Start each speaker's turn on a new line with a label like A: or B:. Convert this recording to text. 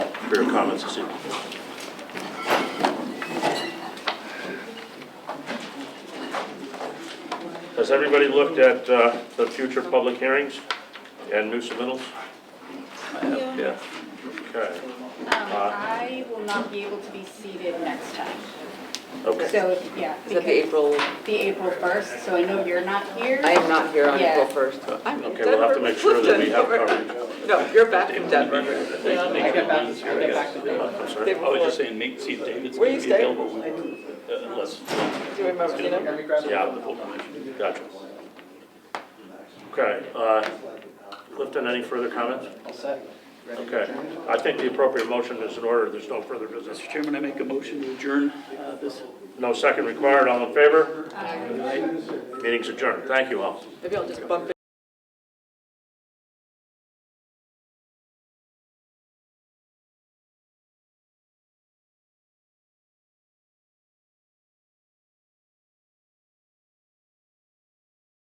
A: for your comments this evening. Has everybody looked at uh, the future public hearings and new submittals? Yeah. Okay,
B: Um, I will not be able to be seated next time.
A: okay.
B: So, if- yeah,
C: Is that the
B: because
C: April,
B: the April 1st, so I know you're not here.
C: I am not here on
B: Yeah.
C: April 1st. I'm in
A: Uh, Okay, we'll have
C: Denver.
A: to make sure that we have coverage.
C: No, you're back from Denver.
D: I got back, I got back to them.
A: I'm
C: They
A: sorry.
C: were
D: I was just
C: like,
D: saying, make, see if David's
C: Where
D: gonna
C: you
D: be
C: staying?
D: available, uh, unless,
C: Do you remember, you know?
A: Yeah, the full commission, gotcha. Okay, uh, Clifton, any further comments?
E: All set. Ready to
A: Okay,
E: adjourn?
A: I think the appropriate motion is in order, there's no further business.
D: Mr. Chairman, I make a motion to adjourn uh, this
A: No second required, all in favor? Meeting's adjourned, thank you all.
C: Maybe I'll just bump